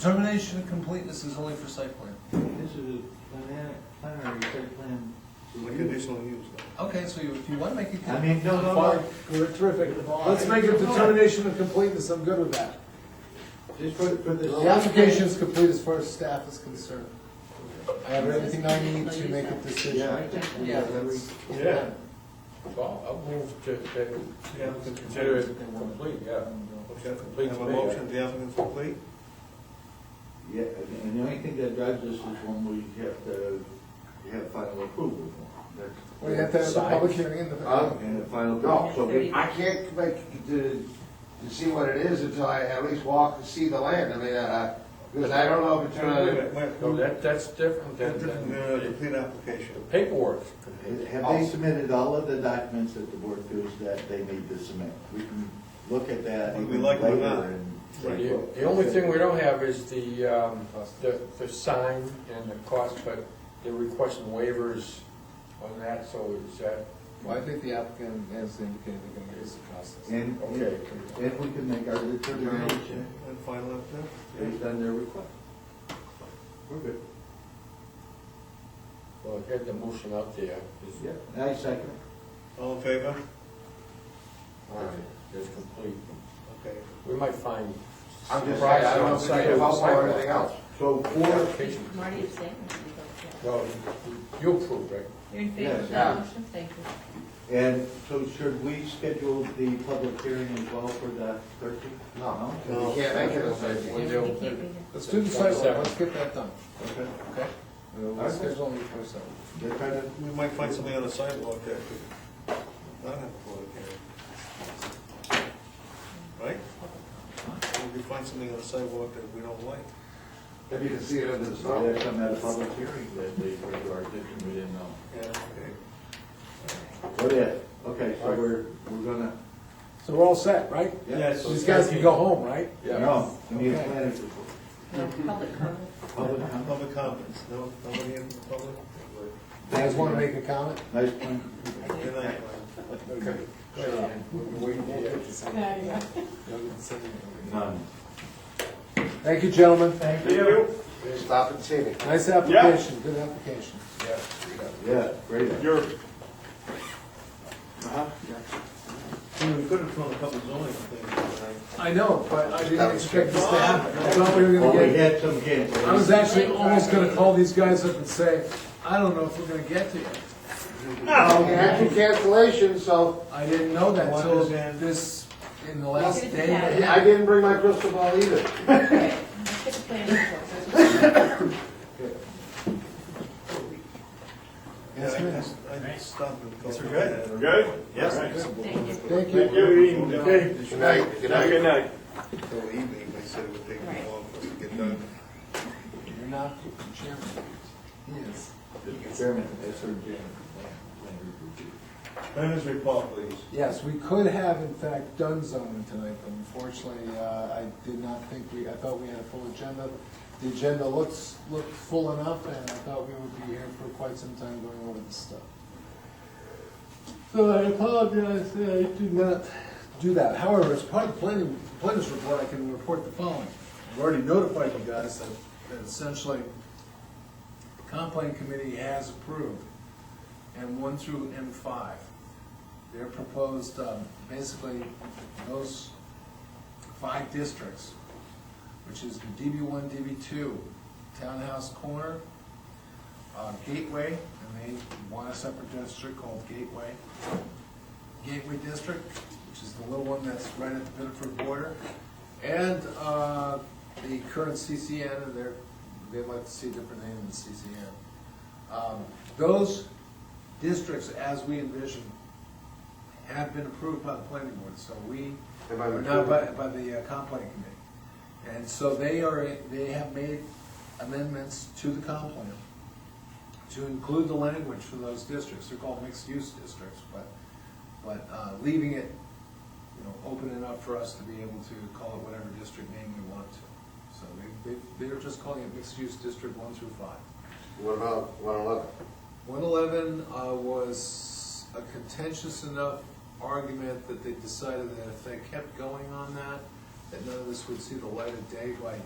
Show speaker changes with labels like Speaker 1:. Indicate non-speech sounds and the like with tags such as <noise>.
Speaker 1: Determination of completeness is only for site plan.
Speaker 2: This is a planar- planary site plan.
Speaker 3: The conditional use.
Speaker 1: Okay, so you- if you want to make it.
Speaker 2: I mean, no, no, no,
Speaker 4: We're terrific. Let's make a determination of completeness, I'm good with that.
Speaker 2: just put, put this.
Speaker 4: The application is complete as far as staff is concerned. I have everything I need to make a
Speaker 2: Yeah, I
Speaker 4: decision.
Speaker 2: think we
Speaker 1: Yeah,
Speaker 2: have every.
Speaker 5: Yeah. Well, I'll move to, to consider it complete, yeah.
Speaker 4: Mm-hmm.
Speaker 3: Okay.
Speaker 5: Complete
Speaker 3: Have a
Speaker 5: today.
Speaker 3: motion, the applicant's complete?
Speaker 2: Yeah, and- and the only thing that drives us is when we have to, we have final approval. That's-
Speaker 4: We have to have a public hearing in
Speaker 6: Uh,
Speaker 4: the,
Speaker 2: And a final.
Speaker 6: No, so we- I can't make, to, to see what it is until I at least walk and see the land, I mean, uh, because I don't know if it's
Speaker 3: Wait, wait,
Speaker 6: gonna.
Speaker 3: wait,
Speaker 5: So
Speaker 3: wait.
Speaker 5: that, that's different than,
Speaker 3: That's different than a
Speaker 5: than
Speaker 3: complete application.
Speaker 5: paperwork.
Speaker 7: Have they submitted all of the documents that the board feels that they need to submit? We can look at that
Speaker 3: We
Speaker 7: even
Speaker 3: like them or
Speaker 7: later
Speaker 3: not.
Speaker 7: and. say,
Speaker 5: The the only thing we don't have is the, um, the, the sign and the cost, but they're requesting waivers on that, so is that,
Speaker 4: well, I think the applicant has indicated they're gonna give us a process.
Speaker 6: And,
Speaker 5: okay.
Speaker 6: and we can make our determination
Speaker 3: And final application.
Speaker 6: based on their request. We're good.
Speaker 5: Well, I had the motion out there. Is-
Speaker 6: Yeah, I second.
Speaker 3: All in favor?
Speaker 5: All right, that's complete.
Speaker 3: Okay.
Speaker 5: We might find.
Speaker 6: I'm just
Speaker 5: surprise
Speaker 6: saying, I don't
Speaker 5: outside
Speaker 6: think
Speaker 5: of the
Speaker 6: about or
Speaker 5: sidewalk.
Speaker 6: anything else. So for,
Speaker 5: Application.
Speaker 8: Marty is saying.
Speaker 5: No, you- you approve, right?
Speaker 8: You're in favor of
Speaker 6: Yeah.
Speaker 8: that motion, thank you.
Speaker 7: And so should we schedule the public hearing as well for the thirteenth?
Speaker 6: no, no, we can't make it a
Speaker 5: Well,
Speaker 6: thing.
Speaker 5: they'll-
Speaker 8: You can't be here.
Speaker 4: Let's do the sidewalk, let's get that done.
Speaker 3: Okay.
Speaker 4: Okay. We'll schedule it for a second.
Speaker 7: They're trying to
Speaker 3: We might find something on the sidewalk that could not have a public hearing. Right? We could find something on the sidewalk that we don't like.
Speaker 6: If you can see it under the
Speaker 7: Well,
Speaker 6: stone.
Speaker 7: there's some at a public hearing that they bring to our attention, we didn't know.
Speaker 3: Yeah, okay.
Speaker 7: What if? Okay, so we're, we're gonna,
Speaker 4: So we're all set, right?
Speaker 7: Yeah.
Speaker 3: Yes.
Speaker 4: These guys can go home, right?
Speaker 5: Yeah.
Speaker 7: no, we need a
Speaker 4: Okay.
Speaker 7: planning report.
Speaker 8: No, Public comment.
Speaker 7: Public comment.
Speaker 3: Public comments, no, nobody in the public?
Speaker 4: Guys wanna make a comment?
Speaker 7: Nice plan.
Speaker 3: Good night.
Speaker 5: Okay. Wait, yeah.
Speaker 7: None.
Speaker 4: Thank you, gentlemen. Thank
Speaker 6: Stop and see me.
Speaker 4: Nice application, good application.
Speaker 5: Yeah.
Speaker 7: Yeah, great.
Speaker 3: You're. We could have thrown a couple zoning things tonight.
Speaker 4: I know, but I didn't expect this to happen. I thought we were
Speaker 7: Well,
Speaker 4: gonna
Speaker 7: we
Speaker 4: get,
Speaker 7: had some
Speaker 4: I was
Speaker 7: cancellations.
Speaker 4: actually almost gonna call these guys up and say, I don't know if we're gonna get to you.
Speaker 6: We had your cancellation, so
Speaker 4: I didn't know that
Speaker 3: One
Speaker 4: till
Speaker 3: is in-
Speaker 4: this, in the last
Speaker 8: Look at the
Speaker 4: day.
Speaker 8: calendar.
Speaker 5: <laughs>
Speaker 6: I didn't bring my crystal ball either.
Speaker 8: Let's get the planning board.
Speaker 3: Yeah, I just, I just stopped and. Yes, we're good. We're
Speaker 9: Good? Yes.
Speaker 8: Thank you.
Speaker 4: Thank
Speaker 9: Thank
Speaker 4: you.
Speaker 9: you. Okay.
Speaker 6: Good night, good
Speaker 9: Have a
Speaker 6: night.
Speaker 9: good night.
Speaker 3: Till evening, they said it would take
Speaker 8: Right.
Speaker 3: too long for us to get done.
Speaker 4: You're not chairman. He is.
Speaker 7: Chairman, that's our chairman. Planning report.
Speaker 3: Planners report, please.
Speaker 4: Yes, we could have in fact done zoning tonight, but unfortunately, uh, I did not think we, I thought we had a full agenda. The agenda looks, looked full enough, and I thought we would be here for quite some time going over this stuff. So I apologize, that I did not do that. However, as part of the planning, planners report, I can report the following. I've already notified you guys that that essentially, the comp plan committee has approved M one through M five. They're proposed, um, basically, those five districts, which is the DB one, DB two, Townhouse Corner, uh, Gateway, and they want a separate district called Gateway. Gateway District, which is the little one that's right at the Bitterford border, and, uh, the current CCN, they're, they'd like to see a different name than CCN. Um, Those districts, as we envision, have been approved by the planning board, so we,
Speaker 6: And by the-
Speaker 4: no, by, by the uh, comp planning committee. And so they are, they have made amendments to the comp plan to include the language for those districts. They're called mixed-use districts, but, but uh, leaving it, you know, open enough for us to be able to call it whatever district name we want to. So they, they, they're just calling it mixed-use district one through five.
Speaker 6: What about one eleven?
Speaker 4: One eleven uh, was a contentious enough argument that they decided that if they kept going on that, that none of this would see the light of day by